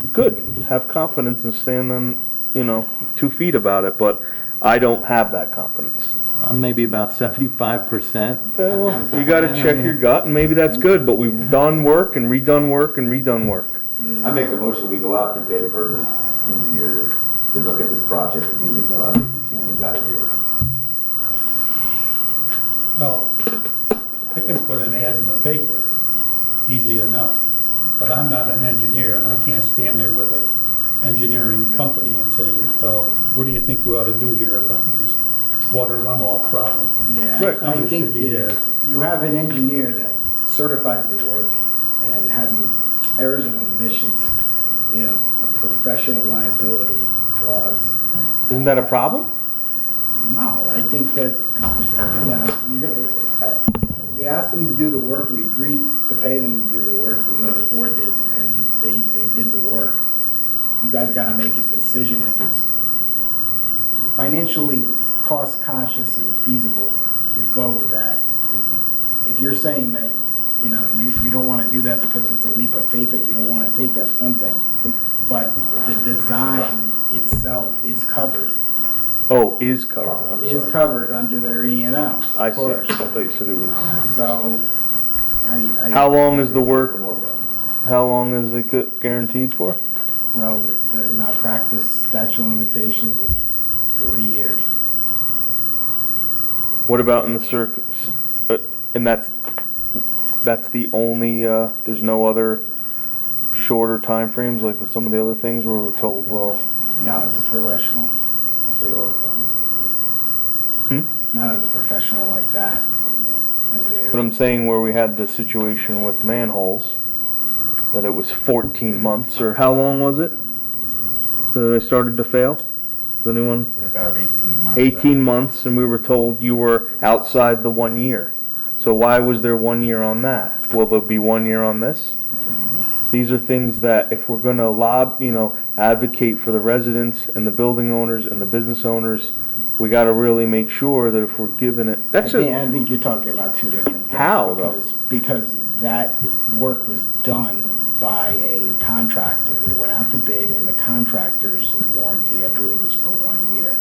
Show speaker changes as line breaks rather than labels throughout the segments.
good, have confidence and stand on, you know, two feet about it, but I don't have that confidence.
I'm maybe about seventy-five percent.
Okay, well, you gotta check your gut, and maybe that's good, but we've done work and redone work and redone work.
I make a motion, we go out to bid for the engineer to look at this project, to do this project, and see what we gotta do.
Well, I can put an ad in the paper, easy enough, but I'm not an engineer, and I can't stand there with a engineering company and say, well, what do you think we ought to do here about this water runoff problem?
Right.
Yeah, I
Something should
think
be there.
if you have an engineer that certified the work and has an errors and omissions, you know, a professional liability clause.
Isn't that a problem?
No, I think that, you know, you're gonna, uh, we asked them to do the work, we agreed to pay them to do the work, another board did, and they, they did the work. You guys gotta make a decision if it's financially cost conscious and feasible to go with that. If- If you're saying that, you know, you, you don't wanna do that because it's a leap of faith that you don't wanna take, that's one thing. But the design itself is covered
Oh, is covered, I'm
is
sorry.
covered under their E and O.
I
of
see, I
course.
thought you said it was.
So, I, I.
How long is the work,
More problems.
how long is it gu- guaranteed for?
Well, the- the malpractice statute of limitations is three years.
What about in the circus, uh, and that's, that's the only, uh, there's no other shorter timeframes like with some of the other things where we're told, well,
Not as a professional,
I'll show you all the problems.
not as a professional like that. engineers.
But I'm saying where we had the situation with manholes, that it was 14 months, or how long was it that they started to fail? Does anyone?
About 18 months.
18 months, and we were told you were outside the one year. So why was there one year on that? Will there be one year on this? These are things that if we're going to lob, you know, advocate for the residents and the building owners and the business owners, we got to really make sure that if we're giving it,
I
that's
think,
a,
I think you're talking about two different things.
How, though?
Because, because that work was done by a contractor. It went out to bid and the contractor's warranty, I believe, was for one year.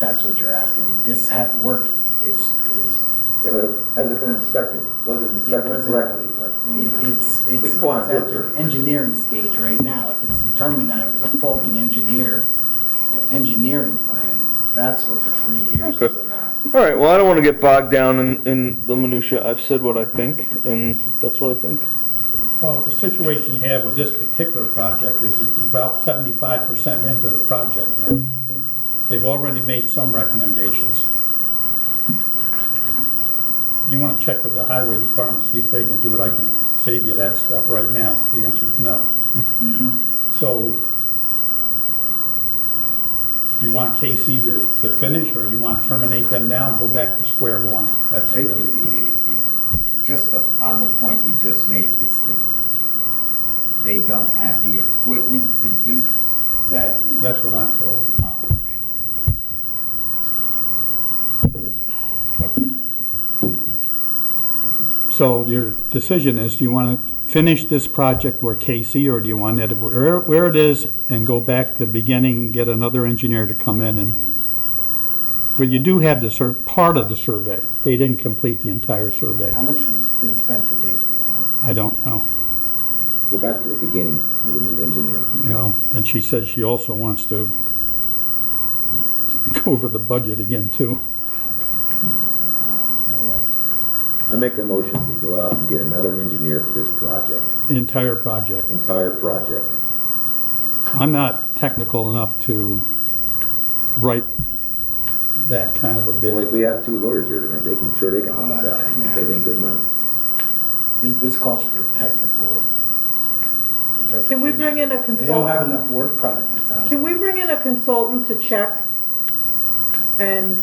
That's what you're asking. This had, work is, is,
Yeah, but has it been inspected? Was it inspected
wasn't-
correctly? Like,
it- it's, it's.
can go on
it's at
filter.
the Engineering stage right now. If it's determined that it was a faulty engineer, engineering plan, that's what the three years
Okay.
is about.
All right. Well, I don't want to get bogged down in, in the minutia. I've said what I think, and that's what I think.
Well, the situation you have with this particular project is it's about seventy-five percent into the project. They've already made some recommendations. You wanna check with the highway department, see if they can do it, I can save you that stuff right now, the answer is no. So, do you want KC to, to finish, or do you wanna terminate them now and go back to square one? That's
Hey,
really.
Just on the point you just made, it's the, they don't have the equipment to do that.
That's what I'm told.
Oh, okay. Okay.
So your decision is, do you want to finish this project where KC, or do you want it where, where it is and go back to the beginning, get another engineer to come in and, but you do have the sur, part of the survey. They didn't complete the entire survey.
How much has been spent to date, do you know?
I don't know.
Go back to the beginning with a new engineer.
You know, then she says she also wants to go over the budget again too.
I make a motion, we go out and get another engineer for this project,
The entire project.
entire project.
I'm not technical enough to write that kind of a bid.
Like, we have two lawyers here tonight, they can, sure they can help us out,
Uh, yeah.
pay them good money.
This, this calls for technical interpretation.
Can we bring in a
They don't have
consultant?
enough work product, it sounds
Can we
like.
bring in a consultant to check? And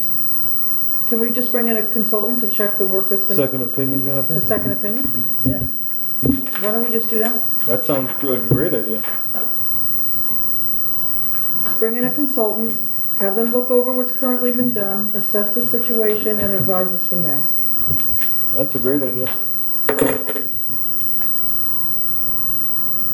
can we just bring in a consultant to check the work that's been,
Second opinion kind of
a
thing.
second opinion?
Yeah.
Why don't we just do that?
That sounds like a great idea.
Bring in a consultant, have them look over what's currently been done, assess the situation, and advise us from there.
That's a great idea.